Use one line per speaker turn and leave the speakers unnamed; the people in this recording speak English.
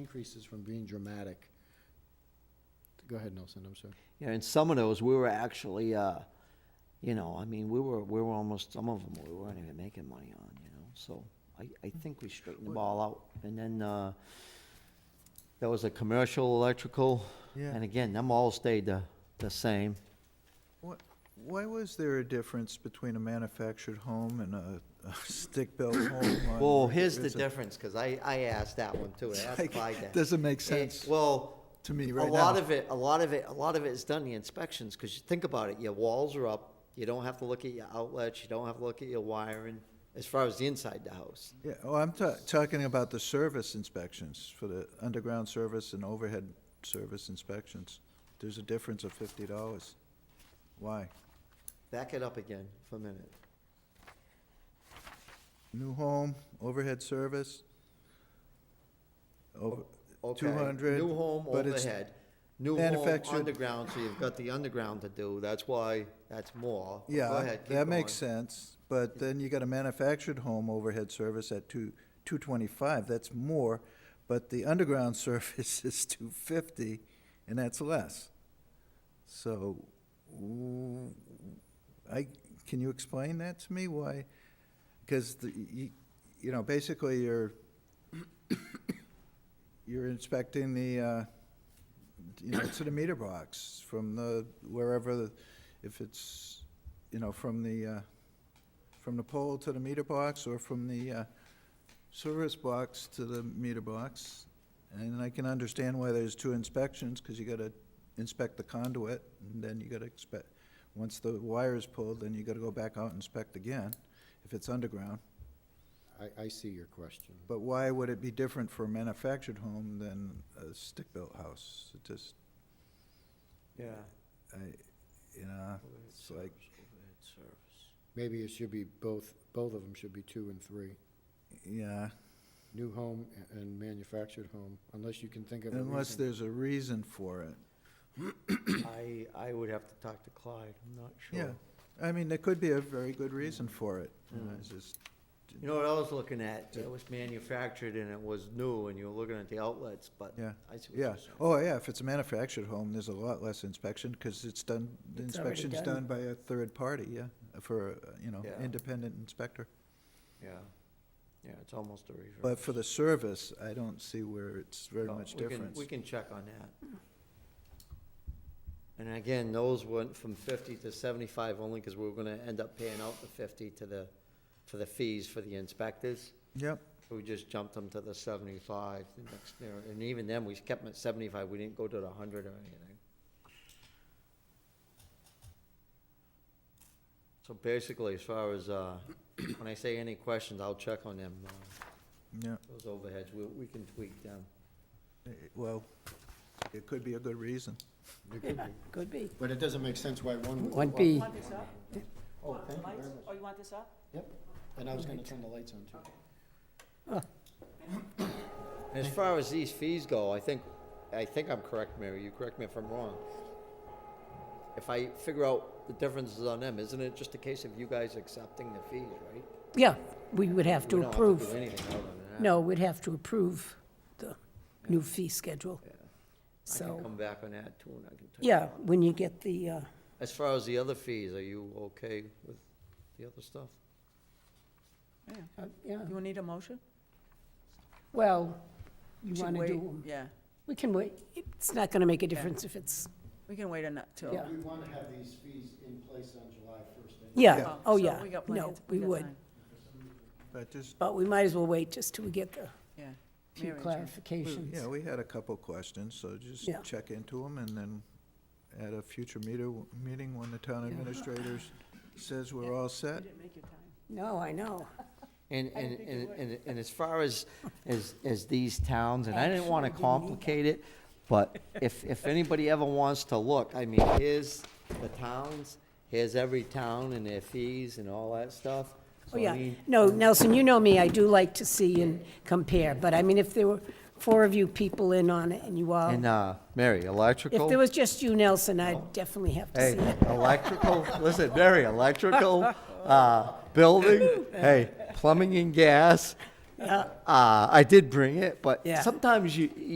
increases from being dramatic. Go ahead, Nelson, I'm sorry.
You know, in some of those, we were actually, uh, you know, I mean, we were, we were almost, some of them, we weren't even making money on, you know, so I, I think we straightened the ball out. And then, uh, there was a commercial electrical,
Yeah.
and again, them all stayed the, the same.
Wh- Why was there a difference between a manufactured home and a a stick-built home? on-
Well, here's the
It's a-
difference, because I, I asked that one too, I asked
like,
Clyde that.
doesn't make
Eh,
sense
Well.
to me right
A lot
now.
of it, a lot of it, a lot of it is done the inspections, because you think about it, your walls are up, you don't have to look at your outlets, you don't have to look at your wiring, as far as the inside the house.
Yeah, oh, I'm ta- talking about the service inspections, for the underground service and overhead service inspections. There's a difference of fifty dollars. Why?
Back it up again for a minute.
New home, overhead service? Over,
Okay,
two hundred?
New home overhead, new home
manufactured-
underground, so you've got the underground to do, that's why, that's more. Go
Yeah,
ahead, keep
that makes
going.
sense, but then you got a manufactured home overhead service at two, two twenty-five, that's more, but the underground service is two fifty, and that's less. So, ooh, I, can you explain that to me, why? Because the, you, you know, basically you're, you're inspecting the, uh, you know, to the meter box from the, wherever, the- if it's, you know, from the, uh, from the pole to the meter box or from the uh, service box to the meter box. And I can understand why there's two inspections, because you gotta inspect the conduit, and then you gotta expect, once the wire is pulled, then you gotta go back out and inspect again, if it's underground.
I, I see your question.
But why would it be different for a manufactured home than a stick-built house? It just,
Yeah.
I, you know, it's like,
Maybe it should be both, both of them should be two and three.
yeah,
New home a- and manufactured home, unless you can think of a
unless
reason.
there's a reason for it.
I, I would have to talk to Clyde, I'm not sure.
Yeah, I mean, there could be a very good reason for it, you know, it's just,
You know what I was looking at, it was manufactured and it was new, and you were looking at the outlets, but
Yeah.
I see what
yeah.
you're saying.
Oh, yeah, if it's a manufactured home, there's a lot less inspection, because it's done, the
It's already
inspection's done
done.
by a third party, yeah, for, uh, you know,
Yeah.
independent inspector.
Yeah, yeah, it's almost a reverse.
But for the service, I don't see where it's very
No,
much
we can-
difference.
We can check on that. And again, those went from fifty to seventy-five only because we were gonna end up paying out the fifty to the, for the fees for the inspectors.
Yep,
So We just jumped them to the seventy-five the next year, and even then, we kept them at seventy-five, we didn't go to the hundred or anything. So basically, as far as, uh, when I say any questions, I'll check on them, uh,
yeah,
those overheads, we, we can tweak them.
Eh, well, it could be a good reason.
It could be.
Could be.
But it doesn't make sense why one. would-
One
why-
B.
Want this up?
Oh,
Want
thank you
lights?
very much.
Oh, you want this up?
Yep, and I was gonna turn the lights on too.
And as far as these fees go, I think, I think I'm correct, Mary, you correct me if I'm wrong. If I figure out the differences on them, isn't it just a case of you guys accepting the fees, right?
Yeah, we would have
We
to
don't have do
approve.
anything other than that.
No, we'd have to approve the new fee schedule.
I can
So,
come back on that too, and I can tell you.
yeah, when you get the, uh,
As far as the other fees, are you okay with the other stuff?
Yeah.
uh, yeah,
You need a motion?
well, you
Should
want to
wait.
do 'em.
Yeah,
We can wait. It's not going to make a difference if it's,
we can wait a nut till.
Yeah.
We wanna have these fees in place on July first.
yeah,
Oh,
oh,
so
yeah.
we got plenty
No,
of-
we
got
would.
time.
But just,
But we might as well wait just till we get the
Yeah.
few
Mary Jo.
clarifications.
yeah, we had a couple questions, so just
Yeah.
check into them, and then at a future meter, meeting, when the town administrator says we're all set,
didn't make your time.
No, I know.
And, and, and, and- and as far as, as, as these towns, and I didn't want to
Actually, we need that.
complicate it, but if, if anybody ever wants to look, I mean, here's the towns, here's every town and their fees and all that stuff.
Oh,
So, I
yeah.
mean,
No, Nelson, you know me, I do like to see and compare, but I mean, if there were four of you people in on it and you all,
And, uh, Mary, electrical.
Um, if there was just you, Nelson, I'd definitely have to
Hey,
see it.
electrical, listen, Mary, electrical, uh, building, hey, plumbing and gas. Uh, I did bring it, but
Yeah.
sometimes you,